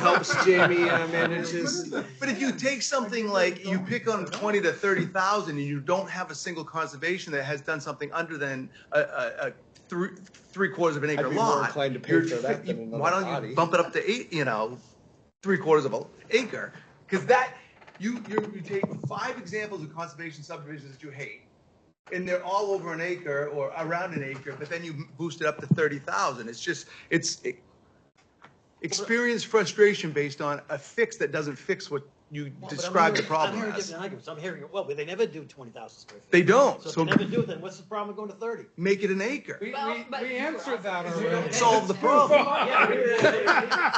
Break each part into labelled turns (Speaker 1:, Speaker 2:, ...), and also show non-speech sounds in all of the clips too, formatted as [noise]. Speaker 1: trips Jamie uh, manages.
Speaker 2: But if you take something like, you pick on twenty to thirty thousand, and you don't have a single conservation that has done something under than a, a, a three, three quarters of an acre
Speaker 3: I'd be more
Speaker 2: lot.
Speaker 3: inclined to pay
Speaker 2: you're-
Speaker 3: for that than another
Speaker 2: Why don't
Speaker 3: body.
Speaker 2: you bump it up to eight, you know, three quarters of an acre? Because that, you, you, you take five examples of conservation subdivisions that you hate, and they're all over an acre or around an acre, but then you boost it up to thirty thousand. It's just, it's, it- experience frustration based on a fix that doesn't fix what you
Speaker 4: No, but I'm
Speaker 2: describe the
Speaker 4: hearing-
Speaker 2: problem
Speaker 4: I'm hearing
Speaker 2: as.
Speaker 4: different arguments. I'm hearing, well, but they never do twenty thousand square feet.
Speaker 2: They don't,
Speaker 4: So if
Speaker 2: so
Speaker 4: they never do it, then what's the problem with going to thirty?
Speaker 2: make it an acre.
Speaker 5: Well, but-
Speaker 6: that
Speaker 1: we don't
Speaker 2: Solve the problem.
Speaker 4: [laughs]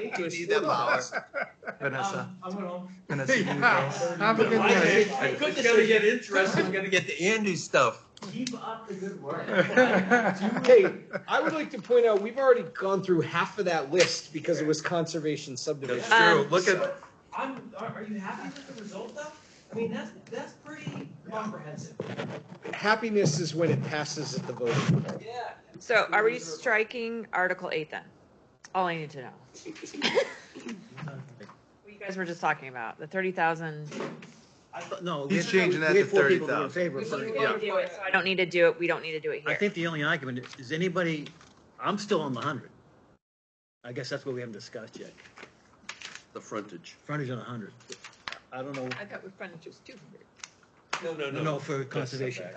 Speaker 2: You need that power. Vanessa,
Speaker 4: Um,
Speaker 6: I'm gonna.
Speaker 2: Vanessa.
Speaker 4: [laughs]
Speaker 2: you
Speaker 6: Yeah.
Speaker 2: go.
Speaker 6: Have a good
Speaker 1: night.
Speaker 6: night.
Speaker 1: It's gonna get interesting, we're gonna get to Andy's stuff.
Speaker 6: Keep up the good work.
Speaker 3: Hey, I would like to point out, we've already gone through half of that list because it was conservation subdivision.
Speaker 1: That's
Speaker 7: Uh,
Speaker 4: um,
Speaker 1: true, look at,
Speaker 6: I'm, are, are you happy with the result though? I mean, that's, that's pretty comprehensive.
Speaker 3: Happiness is when it passes at the voting.
Speaker 6: Yeah.
Speaker 7: So are we striking Article eight then? All I need to know. What you guys were just talking about, the thirty thousand,
Speaker 4: I thought, no. we
Speaker 2: he's
Speaker 4: had-
Speaker 2: changing that
Speaker 4: we
Speaker 2: to
Speaker 4: had four
Speaker 2: thirty
Speaker 4: people who were in
Speaker 2: thousand.
Speaker 4: favor
Speaker 5: We
Speaker 4: of
Speaker 5: voted
Speaker 4: thirty.
Speaker 7: we
Speaker 5: for
Speaker 7: don't do it, so I don't need to do it, we don't need to do it
Speaker 4: I
Speaker 7: here.
Speaker 4: think the only argument is, is anybody, I'm still on the hundred. I guess that's what we haven't discussed yet.
Speaker 1: the frontage.
Speaker 4: Frontage on a hundred. I don't know,
Speaker 5: I thought we frontage was two hundred.
Speaker 1: No, no,
Speaker 4: I don't know for conservation. It-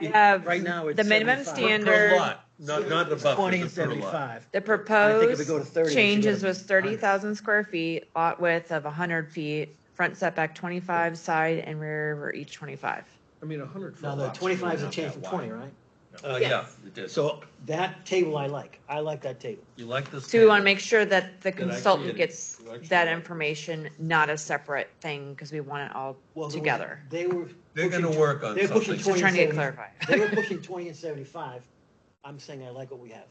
Speaker 4: it-
Speaker 7: Have
Speaker 4: Right now, it's
Speaker 7: the minimum
Speaker 4: 75.
Speaker 7: standard-
Speaker 1: Per lot, not, not the
Speaker 4: It's
Speaker 1: buffer,
Speaker 4: Twenty and
Speaker 1: but per lot.
Speaker 4: seventy-five.
Speaker 7: The
Speaker 4: I think if we go to 30, it
Speaker 7: proposed
Speaker 4: should
Speaker 7: changes
Speaker 4: go to
Speaker 7: was thirty thousand square feet, lot width of hundred feet, front setback twenty-five, side and rear were each twenty-five.
Speaker 3: I mean, a hundred.
Speaker 4: Now, the twenty-five's a change from twenty, right?
Speaker 1: Uh,
Speaker 5: Yes.
Speaker 1: yeah, it is.
Speaker 4: So that table I like. I like that table.
Speaker 1: You like this?
Speaker 7: So we want to
Speaker 1: table?
Speaker 7: make sure that the
Speaker 1: That actually
Speaker 7: consultant
Speaker 1: is-
Speaker 7: gets
Speaker 1: you actually
Speaker 7: that
Speaker 1: like-
Speaker 7: information, not a separate thing, because we want it all
Speaker 4: Well, they were-
Speaker 7: together.
Speaker 4: They were.
Speaker 1: They're
Speaker 4: pushing
Speaker 1: gonna
Speaker 4: tw-
Speaker 1: work on
Speaker 4: They're pushing
Speaker 1: something.
Speaker 7: So
Speaker 4: twenty
Speaker 7: trying
Speaker 4: and
Speaker 7: to get
Speaker 4: seventy.
Speaker 7: clarified, [laughs]
Speaker 4: They were pushing twenty and seventy-five. I'm saying I like what we have.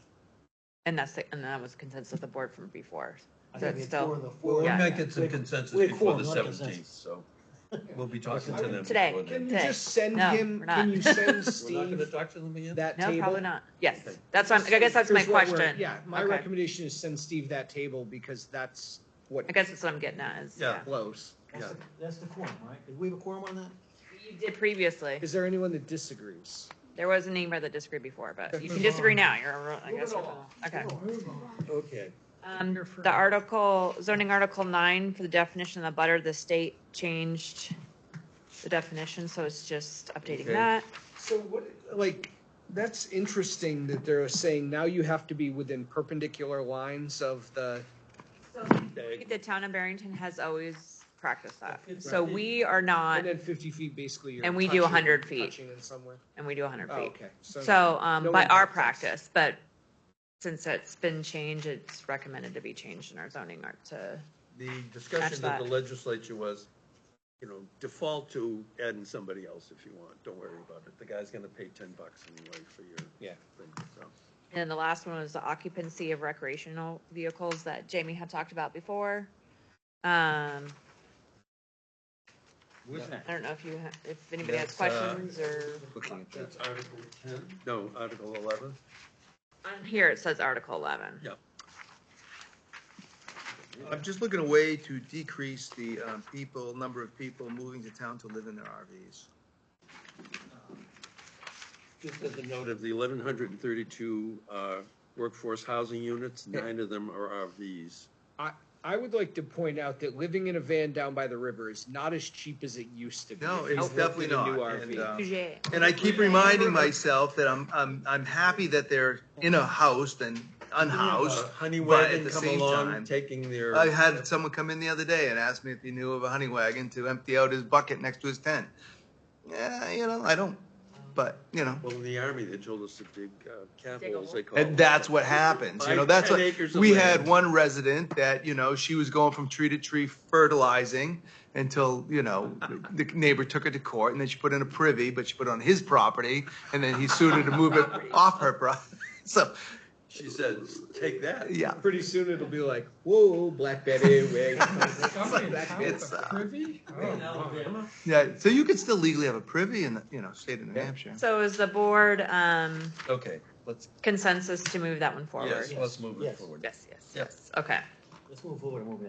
Speaker 7: and that's, the- and that was consensus of the board from before.
Speaker 4: I
Speaker 7: So
Speaker 4: think
Speaker 7: it's
Speaker 4: we had
Speaker 7: still-
Speaker 4: four of the
Speaker 1: Well,
Speaker 4: four.
Speaker 1: we
Speaker 7: Yeah.
Speaker 1: might get some
Speaker 4: We're-
Speaker 1: consensus
Speaker 4: we're
Speaker 1: before
Speaker 4: cool,
Speaker 1: the
Speaker 4: not
Speaker 1: seventeenth,
Speaker 4: consensus.
Speaker 1: so we'll be talking to them.
Speaker 7: Today.
Speaker 1: before then.
Speaker 3: Can you
Speaker 7: Okay.
Speaker 3: just send
Speaker 7: No,
Speaker 3: him,
Speaker 7: we're not. [laughs]
Speaker 3: can you
Speaker 7: We're
Speaker 3: send
Speaker 1: We're not gonna
Speaker 3: Steve
Speaker 1: talk to them again?
Speaker 3: that table?
Speaker 7: No, probably not. Yes,
Speaker 1: Okay.
Speaker 7: that's what, I'm- I guess that's my
Speaker 3: Here's what we're-
Speaker 7: question.
Speaker 3: Yeah, my
Speaker 7: Okay.
Speaker 3: recommendation is send Steve that table because that's what
Speaker 7: I guess that's what I'm getting at is,
Speaker 1: Yeah.
Speaker 7: yeah.
Speaker 3: blows.
Speaker 4: That's the- That's the quorum, right? Did we have a quorum on that?
Speaker 7: You did previously.
Speaker 3: Is there anyone that disagrees?
Speaker 7: There was an email that disagreed before, but you can disagree now. You're, a ro- I guess, okay.
Speaker 3: Okay.
Speaker 7: Um, the article, zoning article nine for the definition of the butter, the state changed the definition, so it's just updating
Speaker 1: Okay.
Speaker 7: that.
Speaker 3: So what, like, that's interesting that they're saying now you have to be within perpendicular lines of the.
Speaker 7: The town of Barrington has always practiced that.
Speaker 4: Right.
Speaker 7: So we are not,
Speaker 3: And then fifty feet, basically, you're.
Speaker 7: Uh, And we do
Speaker 3: touching-
Speaker 7: 100 feet.
Speaker 3: Touching in somewhere.
Speaker 7: and we do hundred
Speaker 3: Oh,
Speaker 7: feet.
Speaker 3: okay.
Speaker 7: So, um,
Speaker 3: no
Speaker 7: by
Speaker 3: one
Speaker 7: our
Speaker 3: practiced.
Speaker 7: practice, but since it's been changed, it's recommended to be changed in our zoning art to,
Speaker 8: the
Speaker 7: Catch
Speaker 8: discussion
Speaker 7: that.
Speaker 8: in the legislature was, you know, default to adding somebody else if you want, don't worry about it, the guy's gonna pay ten bucks anyway for your.
Speaker 3: Yeah.
Speaker 8: thing, so.
Speaker 7: and then the last one was the occupancy of recreational vehicles that Jamie had talked about before. Um,
Speaker 4: Who's
Speaker 7: I
Speaker 4: next?
Speaker 7: don't know if you, ha- if anybody has
Speaker 8: That's, uh,
Speaker 7: questions or.
Speaker 3: Looking at that.
Speaker 1: Article ten?
Speaker 8: No, Article eleven,
Speaker 7: On here, it says Article eleven.
Speaker 2: I'm just looking a way to decrease the um, people, number of people moving to town to live in their RVs.
Speaker 8: just as a note of the eleven hundred and thirty-two, uh, workforce housing units, nine of them are RVs.
Speaker 3: I would like to point out that living in a van down by the river is not as cheap as it used to be.
Speaker 2: No,
Speaker 3: If you
Speaker 2: it's
Speaker 3: lived
Speaker 2: definitely
Speaker 3: in a new
Speaker 2: not,
Speaker 3: RV.
Speaker 2: and, uh,
Speaker 7: Touche.
Speaker 2: And I keep reminding myself that I'm, I'm, I'm happy that they're in a house than unhoused.
Speaker 8: Uh, Honey
Speaker 2: but at
Speaker 8: wagon
Speaker 2: the
Speaker 8: come
Speaker 2: same
Speaker 8: along,
Speaker 2: time-
Speaker 8: taking their.
Speaker 2: I had someone come in the other day and ask me if he knew of a honey wagon to empty out his bucket next to his tent. Yeah, you know, I don't, but, you know,
Speaker 8: Well, in the army, they told us to dig, uh, cat
Speaker 7: Dig a
Speaker 8: holes, they call them.
Speaker 2: and that's what happens, you know,
Speaker 8: Buy
Speaker 2: that's
Speaker 8: 10
Speaker 2: what,
Speaker 8: acres of
Speaker 2: we
Speaker 8: land.
Speaker 2: had one resident that, you know, she was going from tree to tree fertilizing until, you know, the neighbor took her to court and then she put in a privy, but she put it on his property and then he sued her to move it off her property. [laughs] So,
Speaker 8: She says, take that.
Speaker 2: yeah.
Speaker 3: Pretty soon it'll be like, whoa, Black Betty, wait.
Speaker 7: [laughs]
Speaker 2: It's, uh,
Speaker 6: Privy?
Speaker 2: Yeah, so you could still legally have a privy in, the you know, state of New
Speaker 3: Yeah.
Speaker 2: Hampshire.
Speaker 7: So is the board, um,
Speaker 1: Okay, let's,
Speaker 7: consensus to move that one forward?
Speaker 1: yes, let's move it
Speaker 4: Yes.
Speaker 1: forward.
Speaker 7: Yes, yes,
Speaker 1: Yeah.
Speaker 7: yes, okay.
Speaker 4: Let's move forward and move